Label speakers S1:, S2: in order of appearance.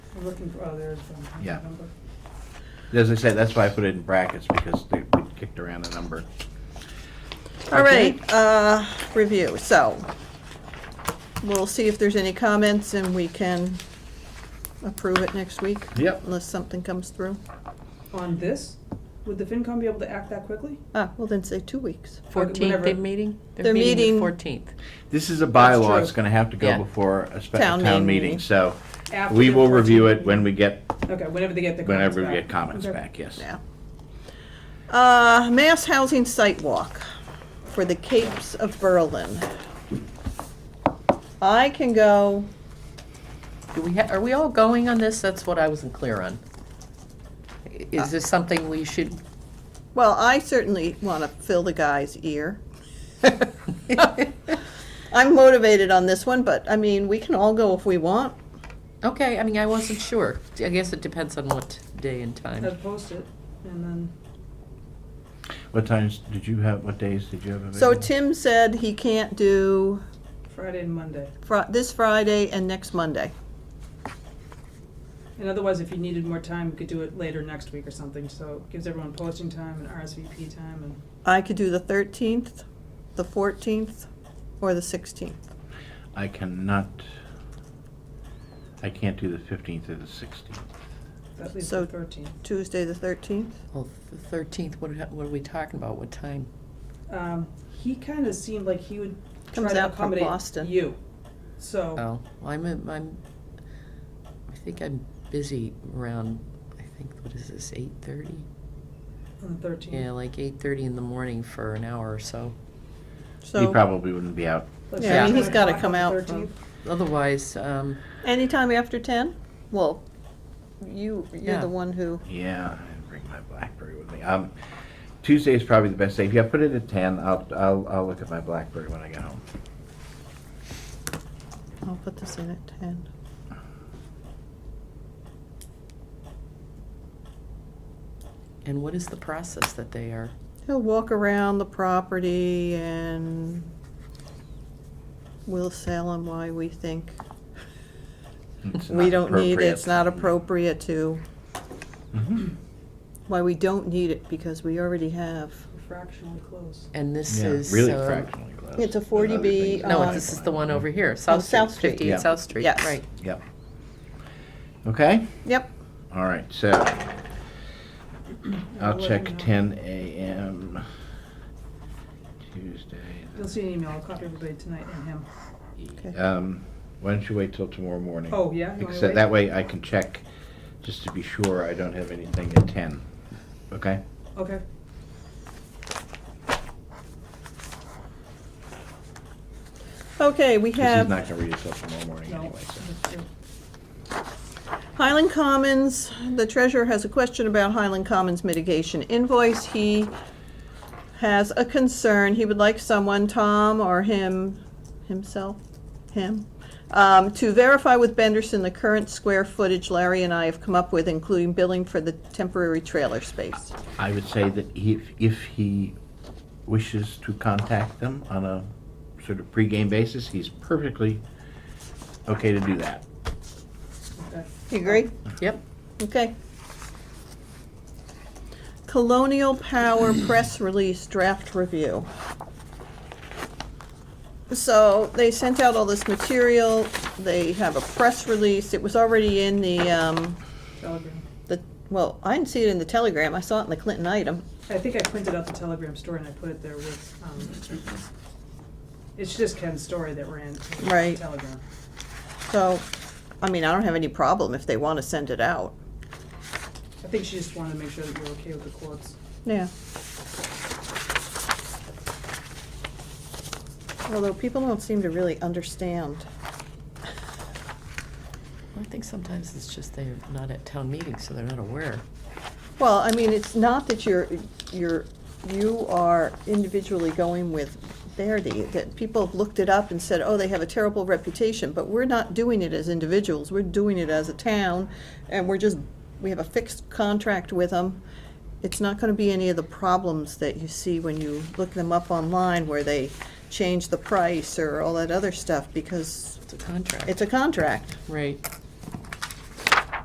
S1: We're looking for, oh, there is one. How's
S2: Yeah.
S1: the number?
S2: As I said, that's why I put it in brackets, because they we kicked around the number.
S3: All
S2: Okay.
S3: right, uh, review, so we'll see if there's any comments and we can approve it next week.
S2: Yep.
S3: Unless something comes through.
S1: On this, would the FinCom be able to act that quickly?
S3: Ah, well then say two weeks.
S1: whenever-
S4: Fourteenth, they're meeting?
S3: They're meeting-
S4: Fourteenth.
S2: This is a
S1: That's true.
S2: bylaw, it's gonna have to go
S4: Yeah.
S2: before a spe-
S3: Town
S2: town
S3: meeting.
S2: meeting, so
S1: After
S2: we
S1: the
S2: will review
S1: 14th?
S2: it when we get,
S1: Okay, whenever they get the comments
S2: whenever we
S1: back.
S2: get comments
S1: Okay.
S2: back, yes.
S3: Yeah. Uh, Mass Housing Site Walk for the Capes of Berlin. I can go,
S4: Do we, ha- are we all going on this? That's what I wasn't clear on. I- Is this something we should,
S3: well, I certainly want to fill the guy's ear. I'm motivated on this one, but I mean, we can all go if we want.
S4: okay, I mean, I wasn't sure. I guess it depends on what day and
S1: Let's
S4: time.
S1: post it, and then,
S2: What times did you have, what days did you have available?
S3: So Tim said he can't do
S1: Friday and Monday.
S3: Fri- this Friday and next Monday.
S1: And otherwise, if you needed more time, you could do it later next week or something, so it gives everyone posting time and RSVP time and.
S3: I could do the 13th, the 14th, or the 16th.
S2: I cannot, I can't do the fifteenth or the sixteenth.
S1: That leaves
S3: So-
S1: the thirteenth.
S3: Tuesday, the 13th.
S4: Well, the thirteenth, what, ha- what are we talking about? What time?
S1: Um, he kind of seemed like he would
S3: Comes
S1: try to
S3: out from
S1: accommodate
S3: Boston.
S1: you. So
S4: Oh, I'm, in- I'm, I think I'm busy around, I think, what is this, eight thirty?
S1: on the 13th.
S4: Yeah, like eight thirty in the morning for an hour or so.
S2: He
S3: So
S2: probably wouldn't be out.
S1: Let's
S3: Yeah,
S1: say
S4: I mean,
S1: nine
S3: he's gotta
S1: o'clock
S3: come
S1: on the
S3: out
S1: 13th.
S4: Otherwise, um,
S3: anytime after 10? Well, you, you're
S4: Yeah.
S3: the one who,
S2: Yeah, I didn't bring my BlackBerry with me. Um, Tuesday is probably the best day. If you put it at ten, I'll, I'll, I'll look at my BlackBerry when I get home.
S3: I'll put this in at 10.
S4: and what is the process that they are?
S3: He'll walk around the property and we'll sell him why we think
S2: It's
S3: we
S2: not
S3: don't need it, it's
S2: appropriate.
S3: not appropriate to,
S1: Mm-hmm.
S2: Mhm.
S3: why we don't need it because we already have.
S1: Fractionally close.
S4: And this
S2: Yeah,
S4: is,
S2: really
S4: uh,
S2: fractionally close.
S3: um, It's a
S2: There's
S3: 40B,
S2: other things
S3: uh,
S4: No,
S2: that
S4: this
S2: I
S4: is the
S2: find.
S4: one over here, South Street.
S3: Oh, South Street.
S4: 58
S2: Yeah.
S4: South Street,
S3: Yes.
S4: right.
S2: Yep. Okay,
S3: Yep,
S2: all right, so I'll check ten AM Tuesday.
S1: You'll see an email. I'll copy everybody tonight and him.
S3: Okay.
S2: Um, why don't you wait till tomorrow morning?
S1: Oh, yeah? You wanna
S2: Except
S1: wait?
S2: that way I can check, just to be sure I don't have anything at ten, okay?
S1: Okay.
S3: okay, we
S2: Because
S3: have.
S2: he's not gonna read it till tomorrow morning
S1: No.
S2: anyway, so.
S1: That's true.
S3: Highland Commons, the treasurer has a question about Highland Commons mitigation invoice. He has a concern. He would like someone, Tom or him, himself, him, um, to verify with Benderson the current square footage Larry and I have come up with, including billing for the temporary trailer space.
S2: I would say that if, if he wishes to contact them on a sort of pregame basis, he's perfectly okay to do that.
S1: Okay. Um,
S3: You agree?
S4: Yep.
S3: Okay. Colonial Power Press Release Draft Review. So they sent out all this material, they have a press release, it was already in the, um,
S1: Telegram.
S3: the, well, I didn't see it in the Telegram, I saw it in the Clinton item.
S1: I think I printed out the Telegram story and I put it there with, um, it's just Ken's story that ran in
S3: Right.
S1: Telegram.
S3: So, I mean, I don't have any problem if they wanna send it out.
S1: I think she just wanted to make sure that you're okay with the quotes.
S3: Yeah. Although people don't seem to really understand.
S4: I think sometimes it's just they're not at town meetings, so they're not aware.
S3: Well, I mean, it's not that you're, you're, you are individually going with Verdi, that people have looked it up and said, oh, they have a terrible reputation, but we're not doing it as individuals, we're doing it as a town, and we're just, we have a fixed contract with them. It's not gonna be any of the problems that you see when you look them up online where they change the price or all that other stuff, because
S4: It's a contract.
S3: it's a contract.
S4: Right.